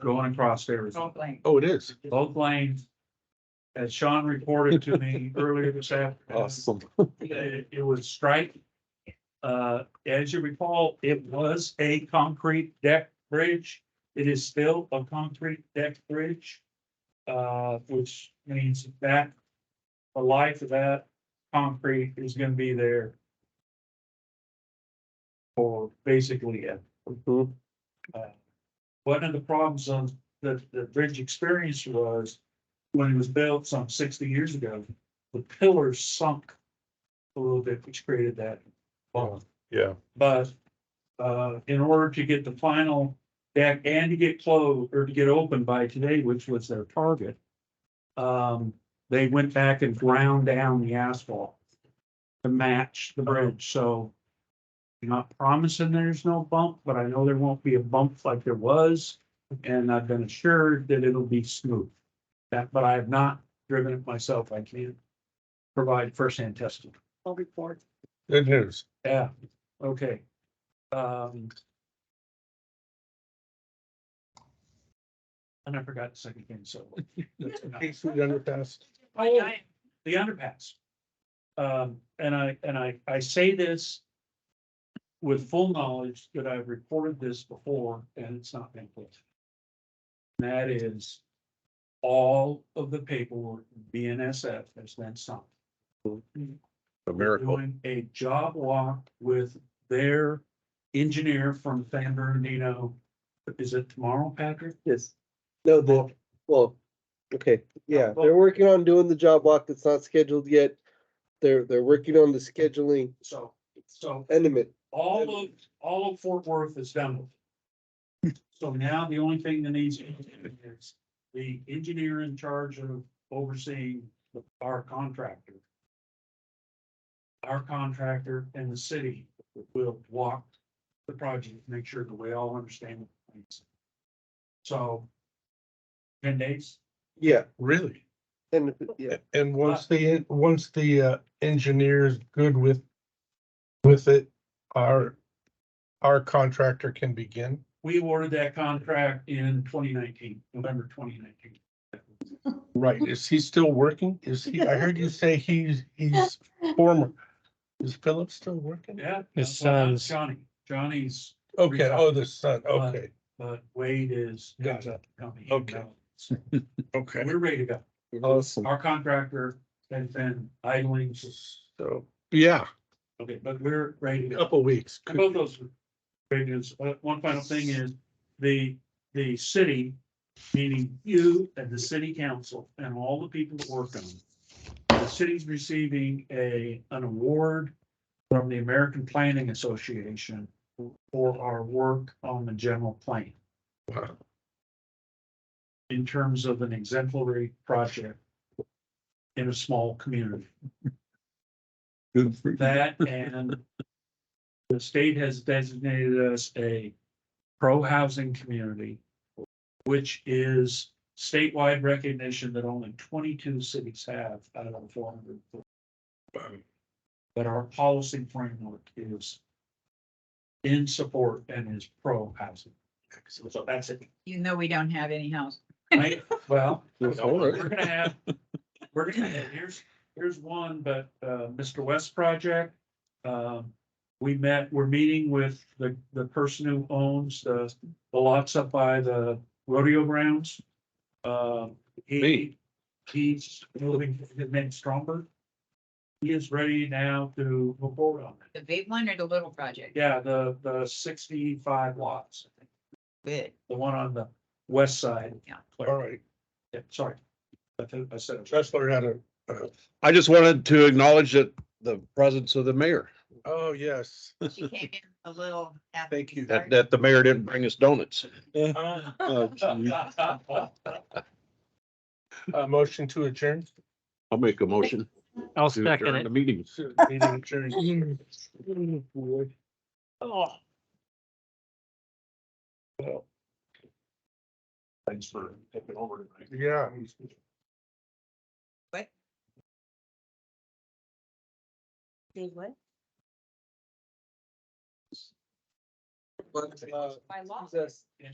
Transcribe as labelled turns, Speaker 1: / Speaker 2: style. Speaker 1: going across Arizona,
Speaker 2: Don't blame.
Speaker 3: Oh, it is.
Speaker 1: both lanes. As Sean reported to me earlier this afternoon,
Speaker 3: Awesome.
Speaker 1: it, it was striped. Uh, as you recall, it was a concrete deck bridge. It is still a concrete deck bridge. Uh, which means that the life of that concrete is gonna be there. For basically it.
Speaker 3: Mhm.
Speaker 1: Uh, One of the problems on the, the bridge experience was when it was built some sixty years ago, the pillars sunk a little bit, which created that bump.
Speaker 3: Yeah,
Speaker 1: But, uh, in order to get the final deck and to get closed or to get open by today, which was their target, um, they went back and ground down the asphalt to match the bridge, so I'm not promising there's no bump, but I know there won't be a bump like there was, and I've been assured that it'll be smooth. That, but I have not driven it myself. I can't provide firsthand testimony.
Speaker 2: I'll report.
Speaker 3: it is.
Speaker 1: Yeah, okay. Um. And I forgot the second thing, so. that's enough.
Speaker 3: East Street underpass.
Speaker 1: Oh, the underpass. Um, and I, and I, I say this with full knowledge that I've reported this before and it's not been put. That is all of the paperwork BNSF has been signed
Speaker 3: A miracle.
Speaker 1: doing a job walk with their engineer from San Bernardino. Is it tomorrow, Patrick?
Speaker 4: Yes. No, the, well, okay, yeah, they're working on doing the job walk that's not scheduled yet. They're, they're working on the scheduling
Speaker 1: So, so
Speaker 4: element.
Speaker 1: all of, all of Fort Worth is done with. it. So now the only thing that needs to be done is the engineer in charge of overseeing the- our contractor. Our contractor and the city will walk the project, make sure that we all understand. what needs. So. Ten days?
Speaker 4: Yeah,
Speaker 3: Really?
Speaker 4: and, yeah,
Speaker 3: And once the, once the uh, engineer is good with, with it, our, our contractor can begin.
Speaker 1: We awarded that contract in twenty nineteen, November twenty nineteen.
Speaker 3: Right, is he still working? Is he, I heard you say he's, he's former. Is Philip still working?
Speaker 1: Yeah.
Speaker 5: His
Speaker 1: well, not
Speaker 5: son's-
Speaker 1: Johnny, Johnny's,
Speaker 3: Okay, oh, the son, okay,
Speaker 1: but Wade is.
Speaker 3: Got it.
Speaker 1: Company.
Speaker 3: Okay.
Speaker 1: So
Speaker 3: okay.
Speaker 1: We're ready to go.
Speaker 3: Awesome.
Speaker 1: Our contractor has been idling,
Speaker 3: So, yeah,
Speaker 1: okay, but we're ready to
Speaker 3: a
Speaker 1: go.
Speaker 3: couple weeks.
Speaker 1: And both those are great news. Uh, One final thing is the, the city, meaning you and the city council and all the people that work on it. The city's receiving a, an award from the American Planning Association for our work on the general plan
Speaker 3: Wow.
Speaker 1: in terms of an exemplary project in a small community.
Speaker 5: Good for
Speaker 1: That and the state has designated us a pro-housing community, which is statewide recognition that only twenty-two cities have out of four hundred. But our policy framework is in support and is pro-housing. So that's it.
Speaker 2: You know, we don't have any house.
Speaker 1: Right? Well,
Speaker 3: All
Speaker 1: we're
Speaker 3: right.
Speaker 1: gonna have, we're gonna, have- here's, here's one, but, uh, Mr. West project. Um, we met, we're meeting with the, the person who owns the, the lots up by the rodeo grounds. Um, he,
Speaker 3: Me.
Speaker 1: he's moving, his name's Stromberg. He is ready now to move forward on it.
Speaker 2: The big one or the little project?
Speaker 1: Yeah, the, the sixty-five lots, I think,
Speaker 2: Good.
Speaker 1: the one on the west side.
Speaker 3: All right.
Speaker 1: Yeah, sorry. I think I said. it.
Speaker 3: Tressler had a,
Speaker 6: I just wanted to acknowledge that the presence of the mayor,
Speaker 3: oh, yes.
Speaker 2: She came in a little. after
Speaker 3: Thank
Speaker 2: we
Speaker 3: you.
Speaker 6: that,
Speaker 2: started.
Speaker 6: that the mayor didn't bring us donuts.
Speaker 3: Uh,
Speaker 6: Oh, gee.
Speaker 3: Uh, motion to adjourn.
Speaker 6: I'll make a motion.
Speaker 5: I'll
Speaker 6: to
Speaker 5: second
Speaker 6: adjourn
Speaker 5: it.
Speaker 6: The meeting.
Speaker 3: Meeting adjourned.
Speaker 1: Thanks for taking over tonight.
Speaker 3: Yeah.
Speaker 7: Did what?
Speaker 4: but, uh,
Speaker 7: By law.
Speaker 4: that's-